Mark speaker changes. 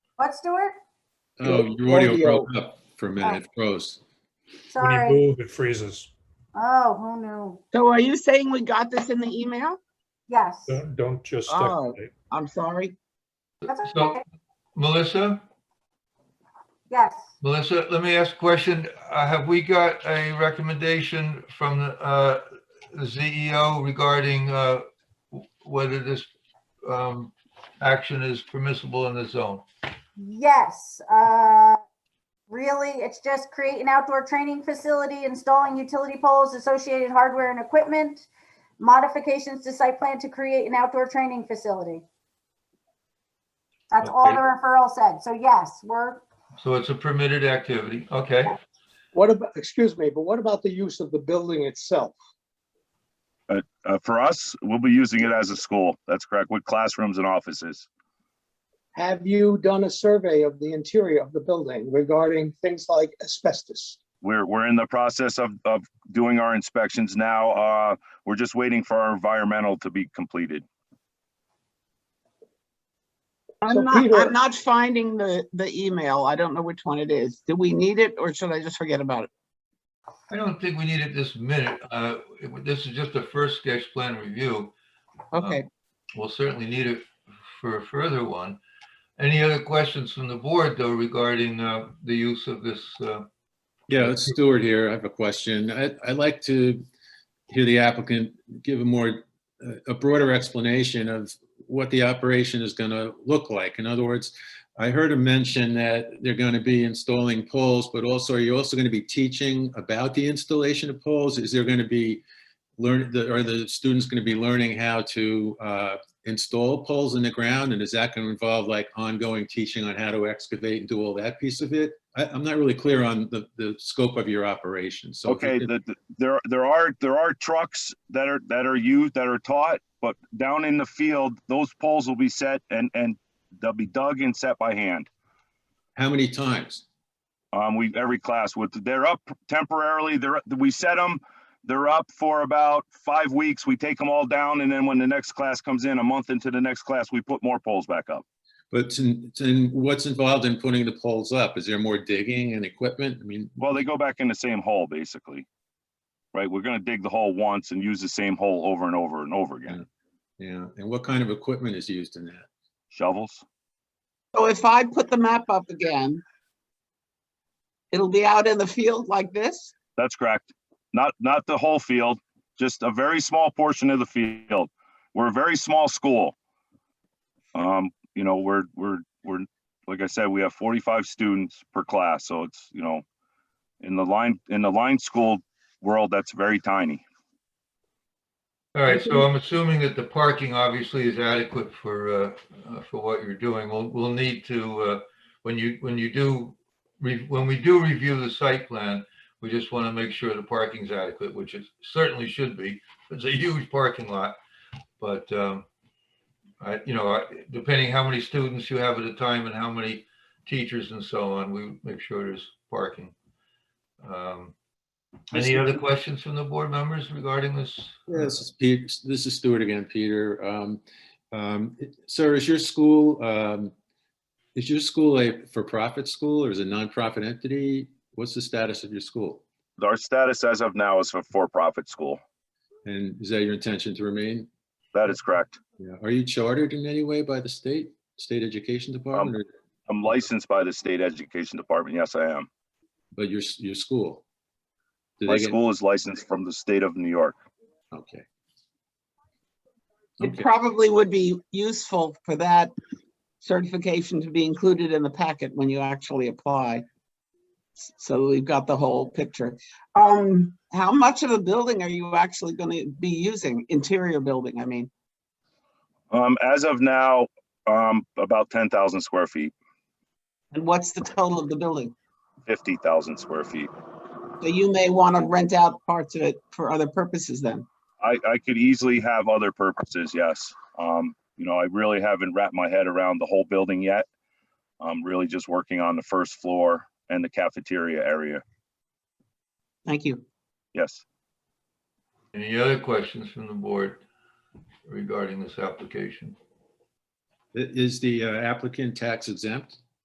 Speaker 1: What, Stuart?
Speaker 2: Oh, your audio
Speaker 3: Audio.
Speaker 2: broke up for a minute. It froze.
Speaker 4: When you
Speaker 1: Sorry.
Speaker 4: move, it freezes.
Speaker 1: Oh, who knew?
Speaker 3: So are you saying we got this in the email?
Speaker 1: Yes.
Speaker 4: Don't, don't just stick
Speaker 3: Oh.
Speaker 4: with it.
Speaker 3: I'm sorry.
Speaker 1: That's
Speaker 5: So-
Speaker 1: okay.
Speaker 5: Melissa,
Speaker 1: Yes.
Speaker 5: Melissa, let me ask a question. Uh, Have we got a recommendation from uh, the CEO regarding uh, whether this um, action is permissible in the zone?
Speaker 1: Yes, uh, really, it's just create an outdoor training facility, installing utility poles, associated hardware and equipment, modifications to site plan to create an outdoor training facility. That's all the
Speaker 5: Okay.
Speaker 1: referral said. So yes, we're,
Speaker 5: So it's a permitted activity, okay?
Speaker 3: What about, excuse me, but what about the use of the building itself?
Speaker 6: Uh, for us, we'll be using it as a school. That's correct, with classrooms and offices.
Speaker 3: Have you done a survey of the interior of the building regarding things like asbestos?
Speaker 6: We're, we're in the process of, of doing our inspections now. Uh, we're just waiting for our environmental to be completed.
Speaker 3: So
Speaker 7: I'm not,
Speaker 3: Peter-
Speaker 7: I'm not finding the, the email. I don't know which one it is. Do we need it or should I just forget about it?
Speaker 5: I don't think we need it this minute. Uh, it- This is just a first sketch plan review.
Speaker 3: Oh.
Speaker 7: Okay,
Speaker 5: We'll certainly need it for a further one. Any other questions from the board, though, regarding uh, the use of this? uh,
Speaker 2: Yeah, it's Stuart here. I have a question. I- I'd like to hear the applicant give a more, uh, a broader explanation of what the operation is going to look like. In other words, I heard him mention that they're going to be installing poles, but also, are you also going to be teaching about the installation of poles? Is there going to be, learn, the- are the students going to be learning how to uh, install poles in the ground? And is that going to involve like ongoing teaching on how to excavate and do all that piece of it? I, I'm not really clear on the, the scope of your operation, so. if you
Speaker 6: Okay,
Speaker 2: could-
Speaker 6: the, the- there, there are, there are trucks that are, that are used, that are taught, but down in the field, those poles will be set and, and they'll be dug and set by hand.
Speaker 2: How many times?
Speaker 6: Um, we, every class with, they're up temporarily, they're, we set them, they're up for about five weeks, we take them all down, and then when the next class comes in, a month into the next class, we put more poles back up.
Speaker 2: But in, in, what's involved in putting the poles up? Is there more digging and equipment? I mean,
Speaker 6: Well, they go back in the same hole, basically. Right, we're gonna dig the hole once and use the same hole over and over and over again.
Speaker 2: yeah, and what kind of equipment is used in that?
Speaker 6: Shovels,
Speaker 7: so if I put the map up again, it'll be out in the field like this?
Speaker 6: that's correct. Not, not the whole field, just a very small portion of the field. We're a very small school. Um, you know, we're, we're, we're, like I said, we have forty-five students per class, so it's, you know, in the line, in the line school world, that's very tiny.
Speaker 5: All right, so I'm assuming that the parking obviously is adequate for, uh, uh, for what you're doing. We'll, we'll need to, uh, when you, when you do, re- when we do review the site plan, we just want to make sure the parking's adequate, which it certainly should be. It's a huge parking lot. But, um, I, you know, I- depending how many students you have at a time and how many teachers and so on, we make sure there's parking. Um, Any other questions from the board members regarding this?
Speaker 2: This is Pete, this is Stuart again, Peter. Um, um, Sir, is your school, um, is your school a for-profit school or is it a nonprofit entity? What's the status of your school?
Speaker 6: Our status as of now is a for-profit school.
Speaker 2: And is that your intention to remain?
Speaker 6: That is correct.
Speaker 2: Yeah. Are you chartered in any way by the state, state education department, or-
Speaker 6: I'm licensed by the state education department. Yes, I am.
Speaker 2: but your, s- your school? Do
Speaker 6: My
Speaker 2: they get-
Speaker 6: school is licensed from the state of New York.
Speaker 2: Okay.
Speaker 7: It
Speaker 2: Okay,
Speaker 7: probably would be useful for that certification to be included in the packet when you actually apply. S- So we've got the whole picture. Um, how much of a building are you actually gonna be using? Interior building, I mean.
Speaker 6: Um, as of now, um, about ten thousand square feet,
Speaker 7: And what's the total of the building?
Speaker 6: fifty thousand square feet.
Speaker 7: So you may want to rent out parts of it for other purposes then.
Speaker 6: I, I could easily have other purposes, yes. Um, you know, I really haven't wrapped my head around the whole building yet. I'm really just working on the first floor and the cafeteria area.
Speaker 7: Thank you.
Speaker 6: Yes,
Speaker 5: Any other questions from the board regarding this application?
Speaker 2: I- is the uh, applicant tax exempt?